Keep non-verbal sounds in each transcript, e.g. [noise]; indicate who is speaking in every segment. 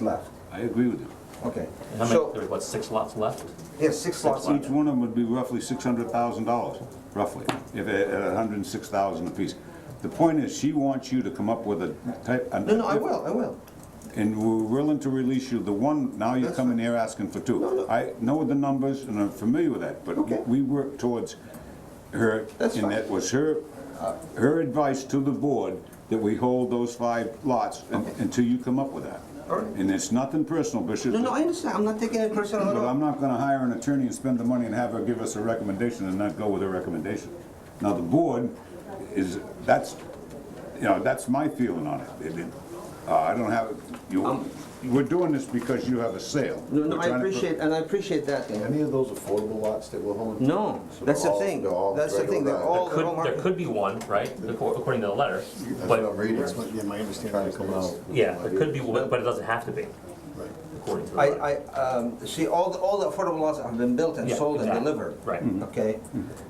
Speaker 1: left.
Speaker 2: I agree with you.
Speaker 1: Okay,
Speaker 3: How many,
Speaker 1: so,
Speaker 3: there's what, six lots left?
Speaker 1: there's six lots.
Speaker 2: Each one of them would be roughly six hundred thousand dollars, roughly, if, at a hundred and six thousand apiece. The point is, she wants you to come up with a type. a-
Speaker 1: No, no, I will, I will.
Speaker 2: And we're willing to release you the one, now you're
Speaker 1: That's
Speaker 2: coming here asking for
Speaker 1: No,
Speaker 2: two.
Speaker 1: no.
Speaker 2: I know the numbers and I'm familiar with that,
Speaker 1: Okay.
Speaker 2: but we work towards her.
Speaker 1: That's
Speaker 2: And
Speaker 1: fine.
Speaker 2: that was her, her advice to the board that we hold those five lots un- until you come up with that.
Speaker 1: All right.
Speaker 2: And it's nothing personal, Bishop.
Speaker 1: No, no, I understand, I'm not taking it personal at
Speaker 2: But I'm
Speaker 1: all.
Speaker 2: not gonna hire an attorney and spend the money and have her give us a recommendation and not go with her recommendation. Now, the board is, that's, you know, that's my feeling on it. It- it. Uh, I don't have, you,
Speaker 1: Um,
Speaker 2: we're doing this because you have a sale.
Speaker 1: No, no,
Speaker 2: We're
Speaker 1: I
Speaker 2: trying to put-
Speaker 1: appreciate, and I appreciate that thing.
Speaker 4: Any of those affordable lots that we're holding?
Speaker 1: No,
Speaker 4: So
Speaker 1: that's the
Speaker 4: all-
Speaker 1: thing,
Speaker 4: they're all
Speaker 1: that's the thing,
Speaker 4: regular
Speaker 1: they're
Speaker 4: guys.
Speaker 1: all,
Speaker 3: Could,
Speaker 1: they're all
Speaker 3: there
Speaker 1: marked.
Speaker 3: could be one, right, acor- according to the letter,
Speaker 4: That's what I'm
Speaker 3: but,
Speaker 4: reading.
Speaker 5: That's what, yeah, my understanding
Speaker 4: Trying to come out.
Speaker 5: is.
Speaker 3: yeah, there could be, one, but it doesn't have to be,
Speaker 4: Right.
Speaker 3: according to the
Speaker 1: I,
Speaker 3: letter.
Speaker 1: I, um, see, all, the- all the affordable lots have been built and
Speaker 3: Yeah,
Speaker 1: sold and
Speaker 3: exactly.
Speaker 1: delivered. Mm-hmm.
Speaker 3: Right.
Speaker 4: Mm-hmm.
Speaker 3: Mm-hmm.
Speaker 1: Okay,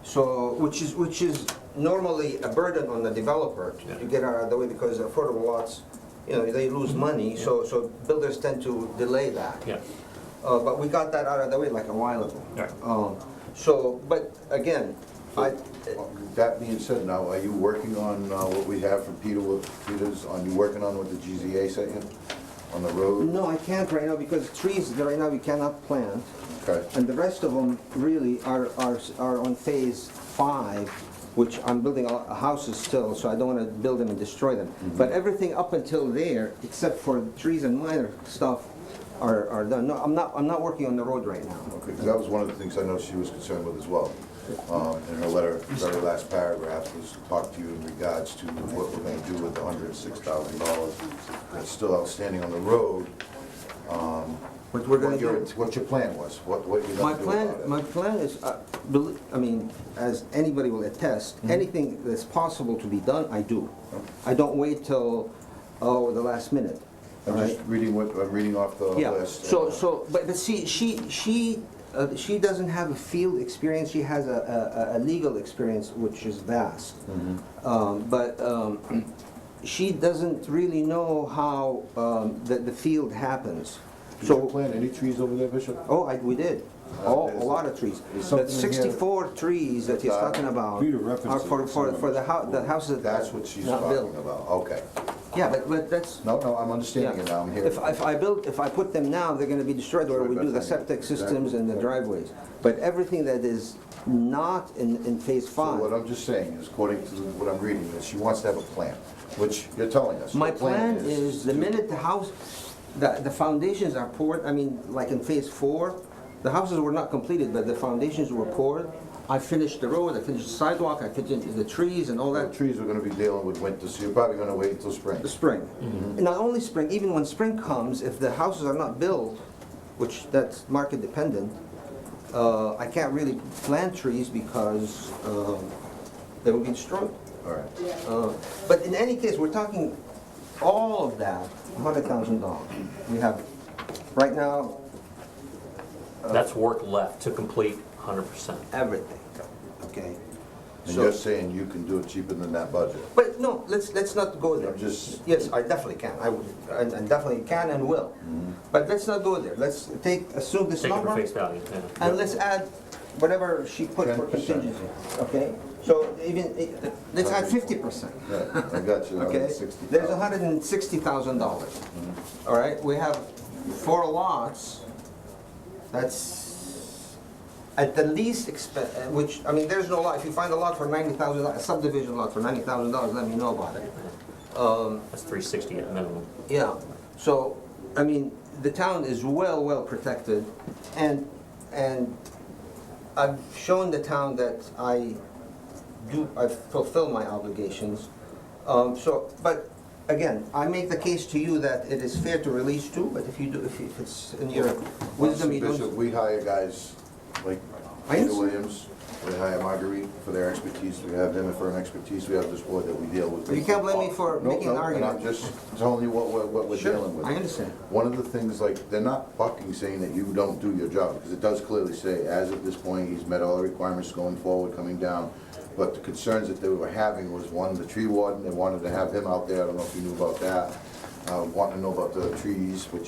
Speaker 1: so, which is, which is normally a burden on the developer to- to
Speaker 3: Yeah. Mm-hmm.
Speaker 1: get out of the way because affordable lots, you know, they lose money, so, so builders tend to delay that.
Speaker 3: Yeah,
Speaker 1: Uh, but we got that out of the way like a while ago.
Speaker 3: Right.
Speaker 1: Um, so, but again, I,
Speaker 4: That being said, now, are you working on uh, what we have from Peter, with- Peters, are you working on what the GZA sent you on the road?
Speaker 1: no, I can't right now because trees that right now we cannot plant.
Speaker 4: Okay.
Speaker 1: And the rest of them really are, are, are on phase five, which I'm building a- houses still, so I don't wanna build them and destroy them.
Speaker 4: Mm-hmm.
Speaker 1: But everything up until there, except for trees and minor stuff, are, are done. No, I'm not, I'm not working on the road right now.
Speaker 4: Okay, 'cause that was one of the things I know she was concerned with as well. Um, In her letter, very last paragraph was talk to you in regards to what we're gonna do with the hundred and six thousand dollars that's still outstanding on the road. Um,
Speaker 1: What we're gonna
Speaker 4: What your,
Speaker 1: do.
Speaker 4: what your plan was, what, what you're
Speaker 1: My
Speaker 4: gonna do about it.
Speaker 1: plan, my plan is, uh, belie- I mean, as anybody will attest,
Speaker 4: Mm-hmm.
Speaker 1: anything that's possible to be done, I do. I don't wait till, oh, the last minute, all
Speaker 4: I'm
Speaker 1: right?
Speaker 4: just reading what, I'm reading off the
Speaker 1: Yeah,
Speaker 4: list. Uh,
Speaker 1: so, so, but, but see, she, she, uh, she doesn't have a field experience, she has a, a, a legal experience, which is vast.
Speaker 4: Mm-hmm.
Speaker 1: Um, but, um, [clears throat] she doesn't really know how, um, the, the field happens.
Speaker 4: Did you
Speaker 1: So,
Speaker 4: plant any trees over there, Bishop?
Speaker 1: oh, I, we did,
Speaker 4: Uh,
Speaker 1: oh, a
Speaker 4: there's-
Speaker 1: lot of trees.
Speaker 4: there's
Speaker 1: The
Speaker 4: something in here.
Speaker 1: sixty-four trees that he's
Speaker 4: Uh,
Speaker 1: talking about
Speaker 2: Peter
Speaker 1: are
Speaker 2: referenced it
Speaker 1: for,
Speaker 2: in
Speaker 1: for,
Speaker 2: some of
Speaker 1: for the
Speaker 2: his-
Speaker 1: hou, the houses
Speaker 4: That's what she's
Speaker 1: not
Speaker 4: talking
Speaker 1: built.
Speaker 4: about, okay.
Speaker 1: Yeah, but, but that's,
Speaker 4: No, no, I'm
Speaker 1: Yeah.
Speaker 4: understanding it now, I'm here.
Speaker 1: If, if I build, if I put them now, they're gonna be destroyed, or we do the septic systems and the driveways. But everything that is not in, in phase
Speaker 4: So what
Speaker 1: five,
Speaker 4: I'm just saying is, according to what I'm reading, that she wants to have a plan, which you're telling us.
Speaker 1: my
Speaker 4: Your
Speaker 1: plan is, the
Speaker 4: to-
Speaker 1: minute the house, the, the foundations are poured, I mean, like in phase four, the houses were not completed, but the foundations were poured. I finished the road, I finished the sidewalk, I finished the trees and all
Speaker 4: The
Speaker 1: that,
Speaker 4: trees we're gonna be dealing with winter, so you're probably gonna wait until spring.
Speaker 1: the spring. And Not only spring, even when spring comes, if the houses are not built, which that's market dependent, uh, I can't really plant trees because um, they will be destroyed.
Speaker 4: All right.
Speaker 1: Uh, But in any case, we're talking all of that, hundred thousand dollars. We have, right now,
Speaker 3: that's work left to complete hundred percent.
Speaker 1: everything, okay?
Speaker 4: And
Speaker 1: So-
Speaker 4: you're saying you can do it cheaper than that budget?
Speaker 1: But no, let's, let's not go there.
Speaker 4: I'm just-
Speaker 1: Yes, I definitely can, I would, I I definitely can and will.
Speaker 4: Mm-hmm.
Speaker 1: But let's not go there, let's take, assume this
Speaker 3: Take it for
Speaker 1: number,
Speaker 3: face value, yeah.
Speaker 1: and let's add whatever she put for
Speaker 4: 10%.
Speaker 1: contingency, okay? So even, eh, let's add fifty percent,
Speaker 4: Yeah, I got you,
Speaker 1: [laughs] okay? There's a hundred and sixty thousand dollars,
Speaker 4: Mm-hmm.
Speaker 1: all right? We have four lots, that's at the least expen, eh, which, I mean, there's no lot, if you find a lot for ninety thousand, a subdivision lot for ninety thousand dollars, let me know about it.
Speaker 3: That's three sixty at minimum.
Speaker 1: Yeah, so, I mean, the town is well, well protected, and, and I've shown the town that I do, I fulfill my obligations. Um, so, but, again, I make the case to you that it is fair to release two, but if you do, if you- if it's in your wisdom, you
Speaker 4: Bishop,
Speaker 1: don't.
Speaker 4: we hire guys like
Speaker 1: I
Speaker 4: Peter
Speaker 1: understand.
Speaker 4: Williams, we hire Marguerite for their expertise, we have them for an expertise, we have this board that we deal with.
Speaker 1: You can't blame me for
Speaker 4: No,
Speaker 1: making an
Speaker 4: no,
Speaker 1: argument.
Speaker 4: And I'm just telling you what, we're- what we're
Speaker 1: Sure,
Speaker 4: dealing with.
Speaker 1: I understand.
Speaker 4: One of the things, like, they're not fucking saying that you don't do your job, because it does clearly say, as of this point, he's met all the requirements going forward, coming down. But the concerns that they were having was, one, the tree warden, they wanted to have him out there, I don't know if you knew about that. Uh, wanting to know about the trees, which